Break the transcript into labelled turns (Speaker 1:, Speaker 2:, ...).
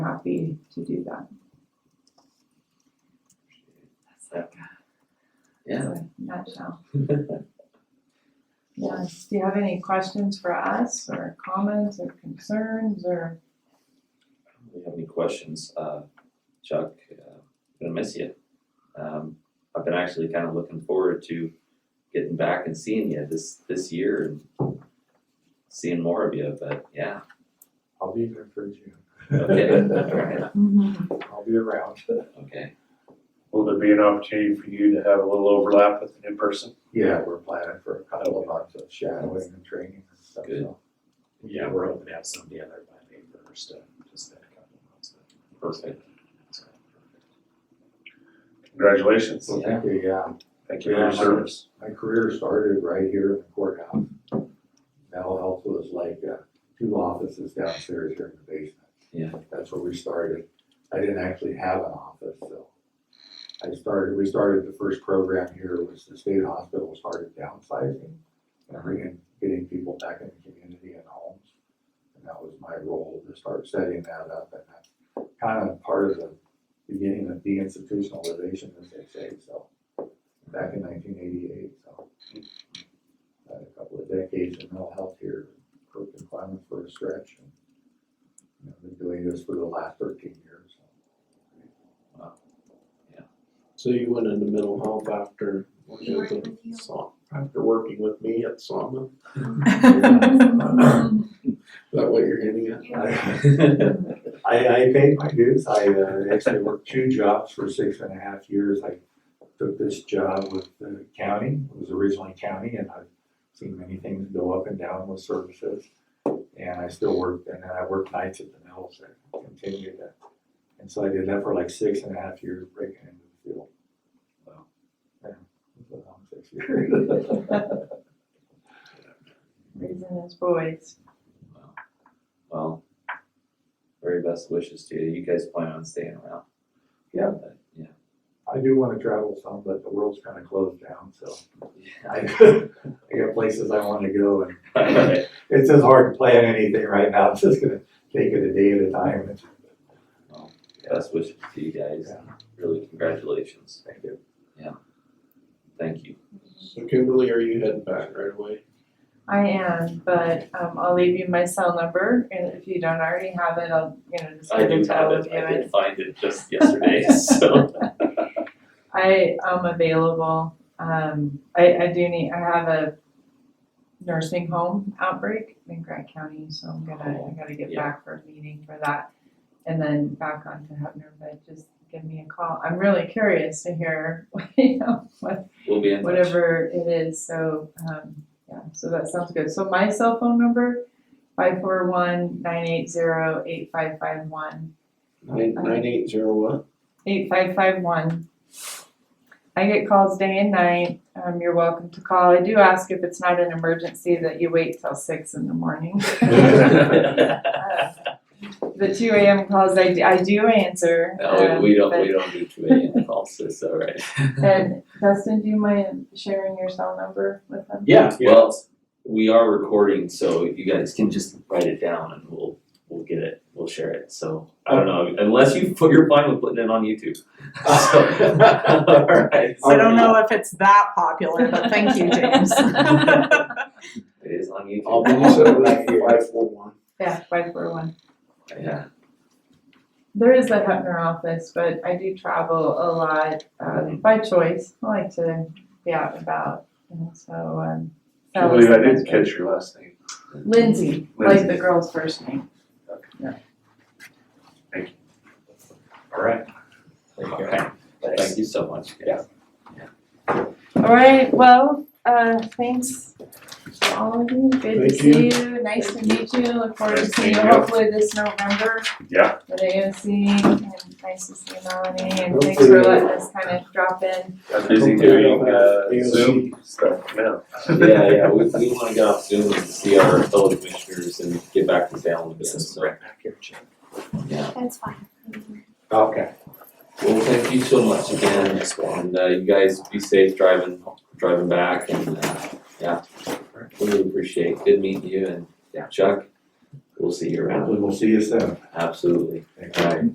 Speaker 1: happy to do that. That's like, that's
Speaker 2: Yeah.
Speaker 1: a nutshell. Yes, do you have any questions for us or comments or concerns or?
Speaker 2: Do you have any questions, uh, Chuck? Uh, gonna miss you. Um, I've been actually kind of looking forward to getting back and seeing you this this year and seeing more of you. But yeah,
Speaker 3: I'll be there for June.
Speaker 2: okay, all right,
Speaker 3: I'll be around.
Speaker 2: okay.
Speaker 4: Will there be an opportunity for you to have a little overlap with the new person?
Speaker 3: Yeah, we're planning for a couple of months of shadowing and training and stuff,
Speaker 2: Good.
Speaker 3: so.
Speaker 5: Yeah, we're hoping to have some together by May first, uh, just in a couple of months.
Speaker 2: Perfect.
Speaker 5: So, perfect.
Speaker 4: Congratulations.
Speaker 3: Well, thank you, yeah.
Speaker 4: Thank you for your
Speaker 3: Yeah.
Speaker 4: service.
Speaker 3: My career started right here in the courthouse. Mental health was like uh, two offices downstairs here in the basement.
Speaker 2: Yeah.
Speaker 3: That's where we started. I didn't actually have an office, so. I started, we started the first program here was the state hospital started downsizing and bringing, getting people back in the community and homes. And that was my role to start setting that up and that's kind of part of the beginning of deinstitutionalization, as they say, so back in nineteen eighty-eight, so. Had a couple of decades in mental health here, worked in Clemens for a stretch. and you know, Been doing this for the last thirteen years.
Speaker 6: So you went into mental health after working with the Sa- after working with me at Sawmill? Is that what you're getting at?
Speaker 3: I,
Speaker 2: okay.
Speaker 3: I paid my dues, I uh, actually worked two jobs for six and a half years, I took this job with the county, it was originally county, and I've seen many things go up and down with services. And I still worked, and then I worked nights at the mills, I continued that. And so I did that for like six and a half years, breaking into the field.
Speaker 2: Wow.
Speaker 3: Yeah, it was a long six years.
Speaker 1: Raising his voice.
Speaker 2: Well, very best wishes to you. You guys plan on staying around?
Speaker 3: Yeah.
Speaker 2: But, Yeah.
Speaker 3: I do wanna travel some, but the world's kinda closed down, so I, I got places I wanna go, and
Speaker 2: Alright.
Speaker 3: it's just hard to plan anything right now, I'm just gonna take it a day at a time, and
Speaker 2: Best wishes to you guys.
Speaker 3: Yeah.
Speaker 2: Really, congratulations.
Speaker 3: thank you.
Speaker 2: Thank you.
Speaker 6: So Kimberly, are you heading back right away?
Speaker 1: I am, but um I'll leave you my cell number and if you don't already have it, I'll, you know, just
Speaker 2: I
Speaker 1: give
Speaker 2: do
Speaker 1: it to all
Speaker 2: have
Speaker 1: of
Speaker 2: it.
Speaker 1: you.
Speaker 2: I did find it just yesterday, so.
Speaker 1: I am available. Um, I, I do need, I have a nursing home outbreak in Grant County, so I'm gonna, I gotta get
Speaker 2: Yeah.
Speaker 1: back for a meeting for that. And then back on to Hebner, but just give me a call. I'm really curious to hear, you know, what,
Speaker 2: We'll be in touch.
Speaker 1: whatever it is, so, um, yeah, so that sounds good. So my cell phone number, five four one nine eight zero eight five five one.
Speaker 6: Nine, nine eight zero what?
Speaker 1: eight five five one. I get calls day and night. Um, you're welcome to call. I do ask if it's not an emergency that you wait till six in the morning. The two AM calls I do, I do answer.
Speaker 2: No,
Speaker 1: um,
Speaker 2: we- we don't,
Speaker 1: but-
Speaker 2: we don't do too many in calls, so it's all right.
Speaker 1: And Dustin, do you mind sharing your cell number with them?
Speaker 2: Yeah, well, we are recording, so you guys can just write it down and we'll, we'll get it, we'll share it, so. I don't know, unless you, you're fine with putting it on YouTube. So, alright.
Speaker 7: I don't know if it's that popular, but thank you, James.
Speaker 2: It is on
Speaker 4: I'll
Speaker 2: YouTube,
Speaker 4: be so glad you five four one.
Speaker 1: Yeah, five four one.
Speaker 2: yeah,
Speaker 1: There is a Hefner office, but I do travel a lot, um, by choice. I like to be out and about, and so, um. that
Speaker 4: Can't
Speaker 1: was
Speaker 4: believe I
Speaker 1: the
Speaker 4: didn't
Speaker 1: best way.
Speaker 4: catch your last name.
Speaker 1: Lindsay, like
Speaker 4: Lindsay.
Speaker 1: the girl's first name.
Speaker 4: All right.
Speaker 2: alright, thank you so much, guys.
Speaker 1: All right, well, uh, thanks to all of you. Good to
Speaker 6: Thank
Speaker 1: see you. Nice to meet you. Look forward to
Speaker 4: Nice
Speaker 1: seeing you
Speaker 4: meeting you.
Speaker 1: hopefully this November
Speaker 4: Yeah.
Speaker 1: at AOC. And nice to see you, Melanie. And thanks
Speaker 6: Hopefully.
Speaker 1: for letting us kind of drop in.
Speaker 4: I'm busy doing uh, Zoom stuff now.
Speaker 2: Yeah, yeah, we, we wanna get off Zoom and see our fellow commissioners and get back to family business, so,
Speaker 4: back here, Jim.
Speaker 2: yeah.
Speaker 8: That's fine.
Speaker 3: Okay.
Speaker 2: Well, thank you so much again, and, uh, you guys be safe driving, driving back and, uh, yeah. Really appreciate, good meeting you and, yeah, Chuck, we'll see you around,
Speaker 3: We'll see you soon.
Speaker 2: absolutely.
Speaker 3: Thank you.
Speaker 2: Alright,